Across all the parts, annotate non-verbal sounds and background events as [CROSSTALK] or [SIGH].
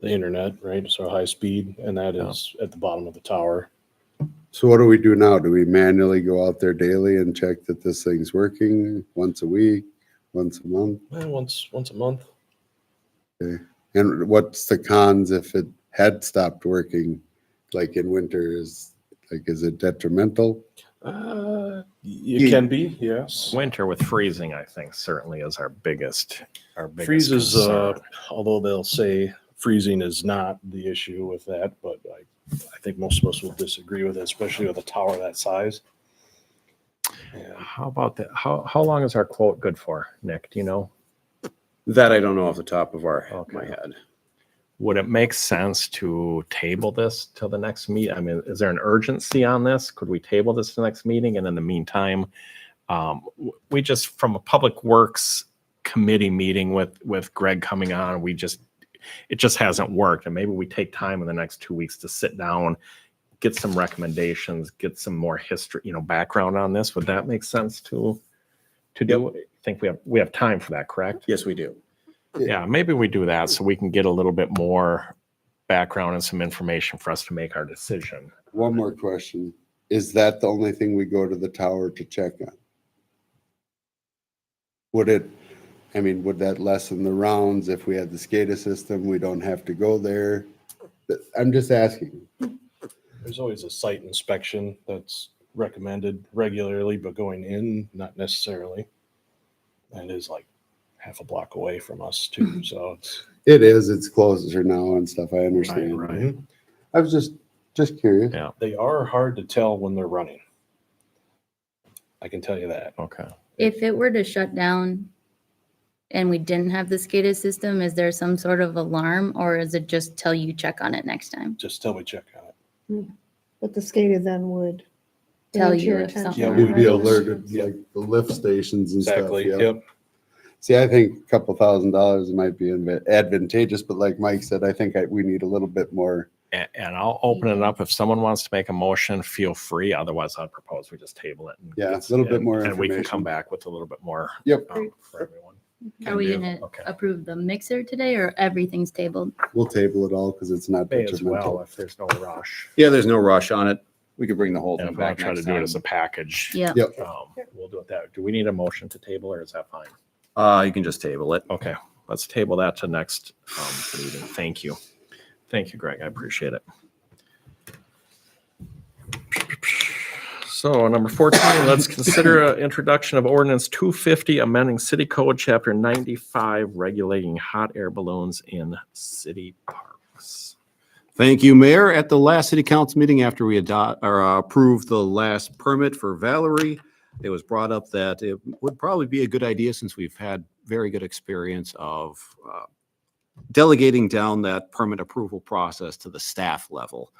the internet, right? So high speed, and that is at the bottom of the tower. So what do we do now? Do we manually go out there daily and check that this thing's working once a week, once a month? Eh, once once a month. And what's the cons if it had stopped working, like in winter? Is like is it detrimental? Uh, it You- can be, yes. Winter with freezing, I think, certainly is our biggest, our biggest. Freezes, uh, concern. although they'll say freezing is not the issue with that, but I, I think most of us will disagree with it, especially with a tower that size. Yeah. How about that? How, how long is our quote good for, Nick? Do you know? That I don't know off the top of our my Okay. head. Would it make sense to table this till the next meet? I mean, is there an urgency on this? Could we table this to the next meeting? And in the meantime, um, w- we just, from a public works committee meeting with, with Greg coming on, we just, it just hasn't worked. And maybe we take time in the next two weeks to sit down, get some recommendations, get some more history, you know, background on this. Would that make sense to, to do? I Think we have, we have time for that, correct? Yes, we do. Yeah, maybe we do that so we can get a little bit more background and some information for us to make our decision. One more question: Is that the only thing we go to the tower to check on? Would it? I mean, would that lessen the rounds if we had the SCADA system? We don't have to go there. Th- I'm just asking. There's always a site inspection that's recommended regularly, but going in, not necessarily. And it is like half a block away from us [LAUGHS] too, so it's. It is. It's closer now and stuff. I understand. I was just just curious. Yeah. They are hard to tell when they're running. I can tell you that. Okay. If it were to shut down and we didn't have the SCADA system, is there some sort of alarm or is it just tell you check on it next time? Just till we check on it. But the skater then would. Tell bring it to you your if something attention, Yeah, We'd be right? alerted, like the lift stations and Exactly, stuff. yeah. yep. See, I think a couple thousand dollars might be inv- advantageous, but like Mike said, I think I, we need a little bit more. And, and I'll open it up. If someone wants to make a motion, feel free. Otherwise, I'd propose we just table it. and Yeah, a get- little bit and- more And we can information. come back with a little bit more. Yep. um, For everyone. Are we do. gonna Okay. approve the mixer today or everything's tabled? We'll table it all because it's not May as well detrimental. if there's no rush. Yeah, there's no rush on it. We could bring the whole And thing if I back try to next do it time. as a package. Yeah. Yep. Um, we'll do it that. Do we need a motion to table or is that fine? Uh, you can just table it. Okay, let's table that to next um, meeting. Thank you. Thank you, Greg. I appreciate it. So number 14, [COUGHS] let's consider a introduction of ordinance 250, amending city code chapter 95, regulating hot air balloons in city parks. Thank you, Mayor. At the last city council meeting, after we adopt or uh, approved the last permit for Valerie, it was brought up that it would probably be a good idea since we've had very good experience of uh, delegating down that permit approval process to the staff level.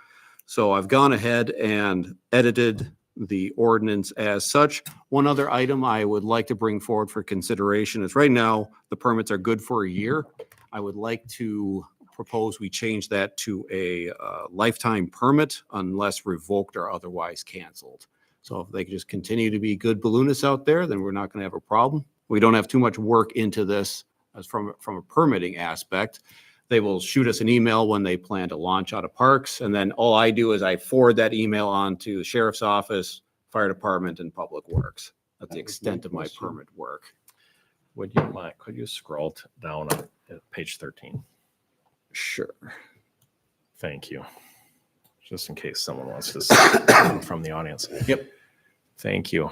So I've gone ahead and edited the ordinance as such. One other item I would like to bring forward for consideration is right now, the permits are good for a year. I would like to propose we change that to a uh, lifetime permit unless revoked or otherwise canceled. So if they could just continue to be good balloonists out there, then we're not going to have a problem. We don't have too much work into this as from, from a permitting aspect. They will shoot us an email when they plan to launch out of parks. And then all I do is I forward that email on to the sheriff's office, fire department and public works. That was That's the my extent of my question. permit work. Would you mind, could you scroll t- down on uh, page 13? Sure. Thank you. Just in case someone wants to say from the audience. Yep. Thank you.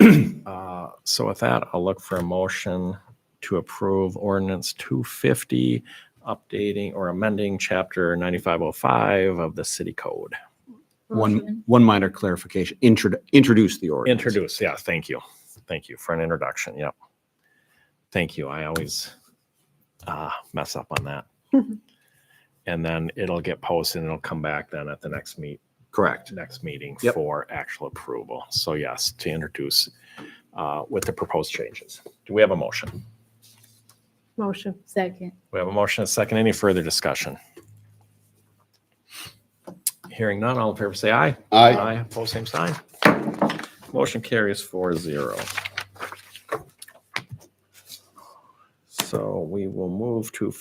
[CLEARS THROAT] Uh, So with that, I'll look for a motion to approve ordinance 250, updating or amending chapter 9505 of the city code. One, Motion. one minor clarification, Introdu- introduce the ordinance. Introduce, yeah, thank you. Thank you for an introduction, yep. Thank you, I always uh, mess up on that. And then it'll get posted and it'll come back then at the next meet, Correct. next meeting Yep. for actual approval. So yes, to introduce uh, with the proposed changes. Do we have a motion? Motion. Second. We have a motion, and a second. Any further discussion? Hearing none, all in favor say aye. I, Aye, pose same sign. Motion carries four zero. So we will move to